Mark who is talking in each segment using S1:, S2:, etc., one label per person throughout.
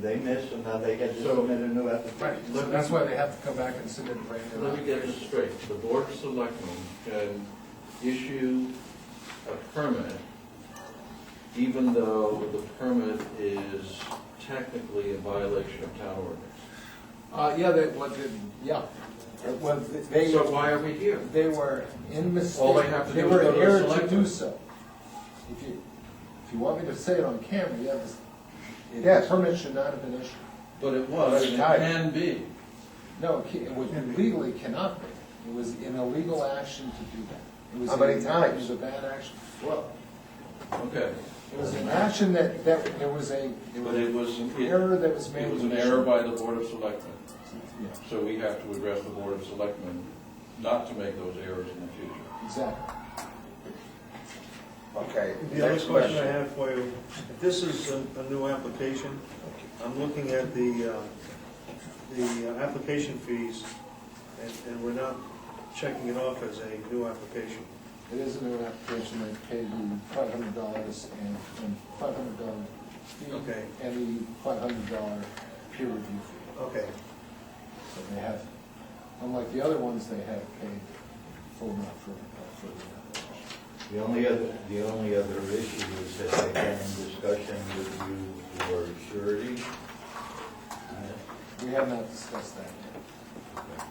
S1: they missed, and now they get to
S2: So-
S1: submit a new
S2: Right,
S1: application.
S2: so that's why they have to come back and submit brand new
S3: Let me get this
S2: applications.
S3: straight, the board of selectmen can issue a permit even though the permit is technically a violation of town ordinance.
S2: Uh, yeah, they, what, the- yeah, It was- they,
S3: So why are we here?
S2: they were in
S3: All they
S2: mistake,
S3: have to
S2: they
S3: do is
S2: were
S3: go to the
S2: error to
S3: selectmen.
S2: do so. If you, if you want me to say it on camera, you have this, the
S1: Yes.
S2: permit should not have been issued.
S3: But it was, and it can be.
S2: No, it ca- it was legally cannot be, it was an illegal action to do that. It was
S1: How many
S2: an-
S1: times?
S2: It was a bad action, well,
S3: Okay.
S2: it was an action that, that, there was a, there
S3: But
S2: was
S3: it was,
S2: an
S3: it
S2: error that was made.
S3: it was
S2: in
S3: an
S2: the
S3: error
S2: issue.
S3: by the board of selectmen,
S2: Yeah,
S3: so we have to address the board of selectmen not to make those errors in the future.
S2: exactly.
S4: Okay.
S5: The other
S4: next
S5: question I have for you, if this is a, a new application, I'm looking at the, uh, the uh, application fees, and, and we're not checking it off as a new application.
S2: It is a new application, they paid the five hundred dollars and, and five hundred dollar fee.
S5: Okay.
S2: And the five hundred dollar peer review fee.
S5: Okay,
S2: So they have, unlike the other ones, they have paid full amount for, uh, for the application.
S1: The only other, the only other issue is that they had in discussion with you for surety.
S2: We have not discussed that yet.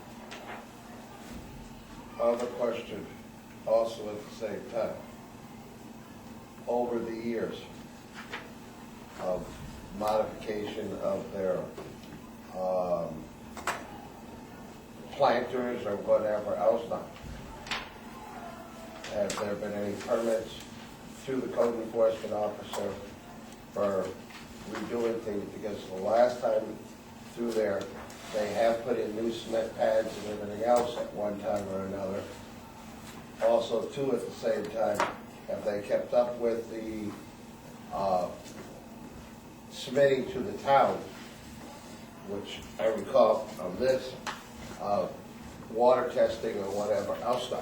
S4: Other question, also at the same time. Over the years of modification of their um, planters or whatever else now, have there been any permits to the code enforcement officer for redoing things? Because the last time through there, they have put in new cement pads and everything else at one time or another. Also, too, at the same time, have they kept up with the uh, submitting to the town, which I recall on this, uh, water testing or whatever else now?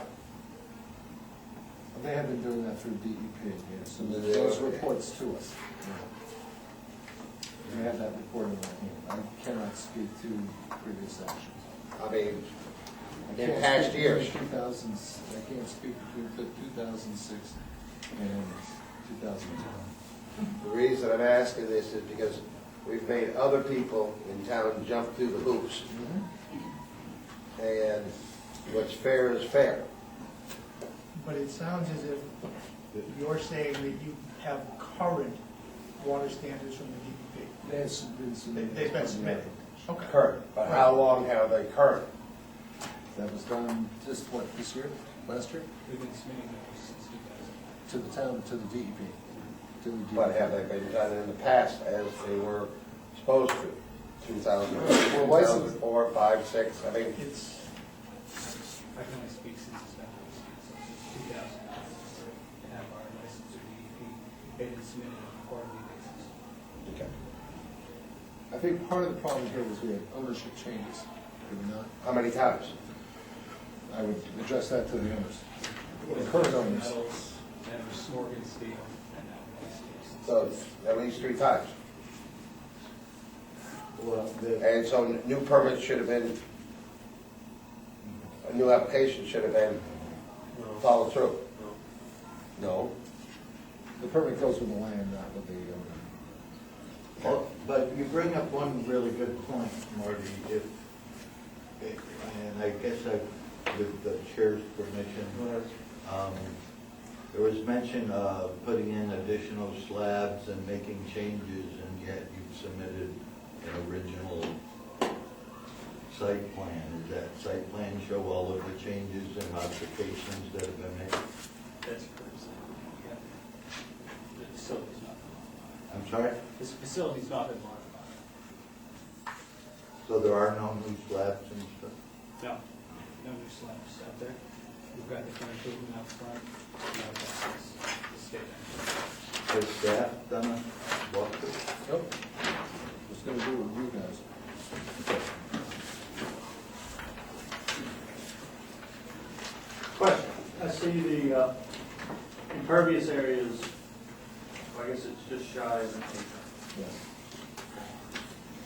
S2: They have been doing that through DEP, yeah, so
S4: Yeah,
S2: those
S4: okay.
S2: reports to us. We have that report in our hand. I cannot speak to previous actions.
S4: I mean,
S2: I
S4: in
S2: can't
S4: past
S2: speak
S4: years.
S2: between 2000s I can't speak between two thousand six and two thousand ten.
S4: The reason I'm asking this is because we've made other people in town jump through the hoops, and what's fair is fair.
S6: But it sounds as if you're saying that you have current water standards from the E DEP.
S2: That's been submitted.
S6: They- they've been
S2: on the
S6: submitted.
S2: application.
S6: Okay.
S4: Current, but how long have they current?
S2: That was done just, what, this year, last year?
S7: We've been submitting those since 2000.
S2: To the town, to the DEP. to the E DEP.
S4: But have they been done in the past as they were supposed to? 2000,
S2: Well, why is it-
S4: 2004, 5, 6, I mean,
S6: It's,
S7: I can only speak since it's been listed, so since 2000, we have our license E or DEP, it is submitted on a quarterly basis.
S4: okay.
S2: I think part of the problem here was we had ownership changes, did we not?
S4: how many times?
S2: I would address that to the owners, the current owners.
S7: Metals, then it was Morgan Steel, and now Morgan Steel.
S4: So at least three times.
S1: Well, the,
S4: And so new permits should have been, a new application should have been
S5: no,
S4: followed through.
S5: no.
S4: No.
S2: The permit goes with the land, not with the owner.
S1: well, but you bring up one really good point, Marty, if, and I guess I, with the chair's permission, Um, There was mention of putting in additional slabs and making changes, and yet you've submitted an original site plan. Does that site plan show all of the changes and modifications that have been made?
S7: That's correct. Yeah. The facility's not been modified.
S1: I'm sorry?
S7: This facility's not been modified.
S1: So there are no new slabs and stuff?
S7: No, no new slabs out there. We've got the current building out front, no, that's the state.
S1: Has staff done a walkthrough?
S2: Nope. Just gonna do it with you guys.
S8: Question, I see the uh, impervious areas, I guess it's just shy of an acre.
S2: Yes.